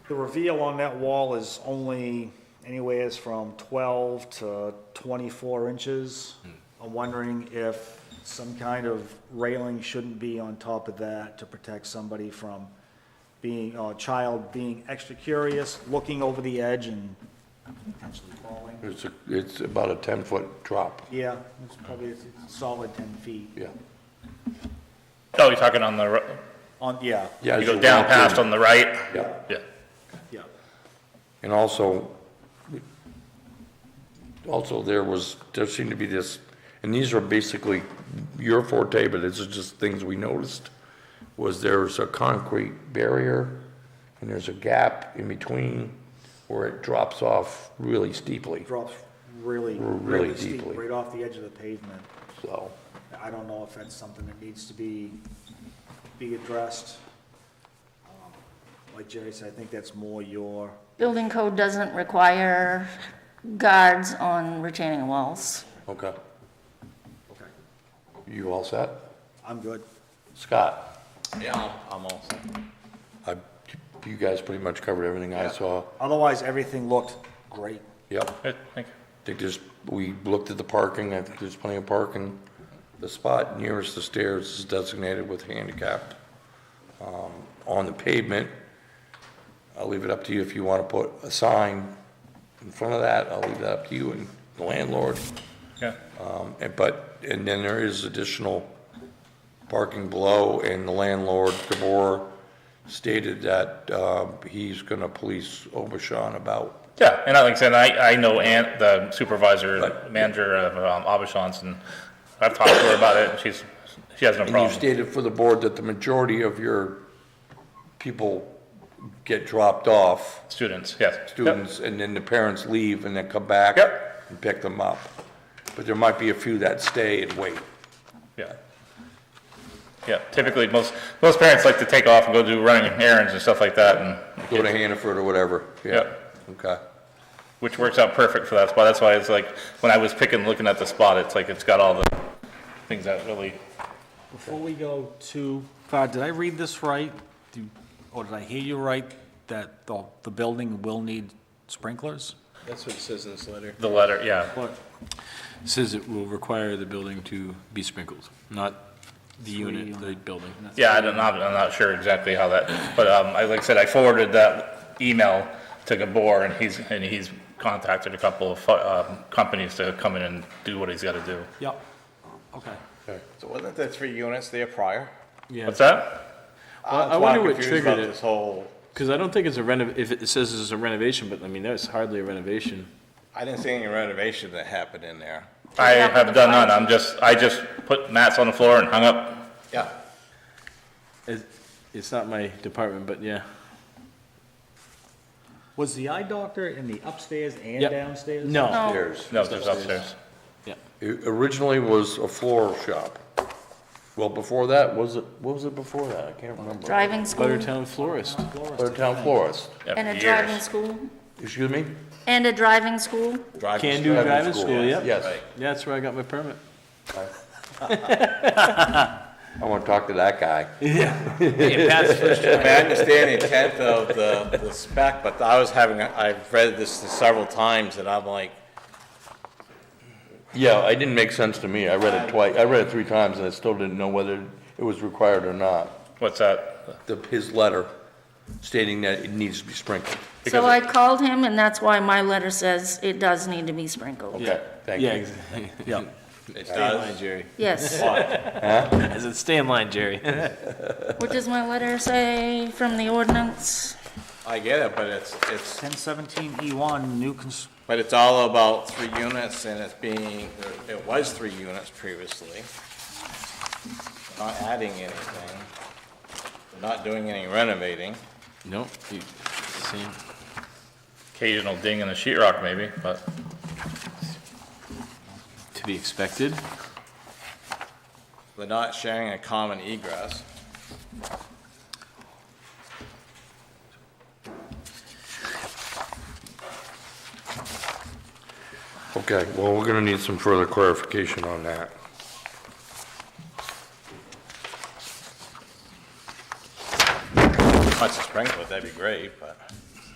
The reveal on that wall is only anywheres from 12 to 24 inches. Hmm. I'm wondering if some kind of railing shouldn't be on top of that to protect somebody from being, or a child being extra curious, looking over the edge and potentially falling. It's, a- it's about a 10-foot drop, Yeah, it's probably a solid 10 feet. yeah. Oh, you're talking on the, ri- On, yeah, Yeah, you as go down walk in. past on the right? Yeah, Yeah. yeah. and also, also there was, there seemed to be this, and these are basically your forte, but this is just things we noticed, was there's a concrete barrier, and there's a gap in between where it drops off really steeply, Drops really, Really really steep, deeply. right off the edge of the pavement. so. I don't know if that's something that needs to be, be addressed. Um, Like Jerry said, I think that's more your, Building code doesn't require guards on retaining walls. Okay, okay, you all set? I'm good. Scott? Yeah, I'm all set. I, you guys pretty much covered everything I saw. Otherwise, everything looked great. Yep. Good, thank you. I think there's, we looked at the parking, I think there's plenty of parking. The spot nearest the stairs is designated with handicap um, on the pavement. I'll leave it up to you if you want to put a sign in front of that, I'll leave that up to you and the landlord. Yeah, Um, and- But, and then there is additional parking below, and the landlord, DeBoer, stated that um, he's going to police Obashan about yeah, and I like I said, I, I know Ann, the supervisor, Right. manager of um, Abishans, and I've talked to her about it, and she's, she has no And you problem. stated for the board that the majority of your people get dropped off, Students, yes. Yep. students, and then the parents leave and then come back Yep. and pick them up. But there might be a few that stay and wait. Yeah. Yeah, typically, most, most parents like to take off and go do running errands and stuff like that, and, Go to Hannaford or whatever, yeah. Yep. Okay, which works out perfect for that spot. That's why it's like, when I was picking, looking at the spot, it's like, it's got all the things that really, Before we go too far, did I read this right? Do- Or did I hear you right, that the, the building will need sprinklers? That's what it says in this letter. the letter, yeah. What? Says it will require the building to be sprinkled, not the unit, the building. Yeah, I don't, I'm not, I'm not sure exactly how that, but, um, I, like I said, I forwarded that email to Gabor, and he's, and he's contacted a couple of, fu- um, companies to come in and do what he's gotta do. Yep, okay. So wasn't there three units there prior? What's that? Well, I wonder what triggered it. This whole, Because I don't think it's a renov, if it says it's a renovation, but I mean, that's hardly a renovation. I didn't see any renovation that happened in there. I have done none, I'm just, I just put mats on the floor and hung up Yeah. It- It's not my department, but yeah. Was the eye doctor in the upstairs and Yep. downstairs? No, there's. No, just upstairs. It originally was a floral shop. Well, before that, was it, what was it before that? I can't remember. Driving school Buttertown florist. Buttertown Florist, Yeah, and a years. driving school excuse me? and a driving school. Can do driving school, yep. Yes. Yeah, that's where I got my permit. I want to talk to that guy. I mean, I understand the intent of the, the spec, but I was having, a- I've read this several times and I'm like, Yeah, it didn't make sense to me. I read it twice, I read it three times, and I still didn't know whether it was required or not. What's that? The, his letter stating that it needs to be sprinkled. Because So I called him and that's why my letter says it does need to be sprinkled. Okay, thank Yeah, you. exactly. it Stay in does. line, Jerry. Yes. I said, stay in line, Jerry. What does my letter say from the ordinance? I get it, but it's, it's, 1017E1, E new cons, but it's all about three units and it's being, it was three units previously. Not adding anything, not doing any renovating. Nope. you- Same. Occasional ding in the sheetrock, maybe, but To be expected. They're not sharing a common egress. Okay, well, we're gonna need some further clarification on that. Much to sprinkle, that'd be great, but.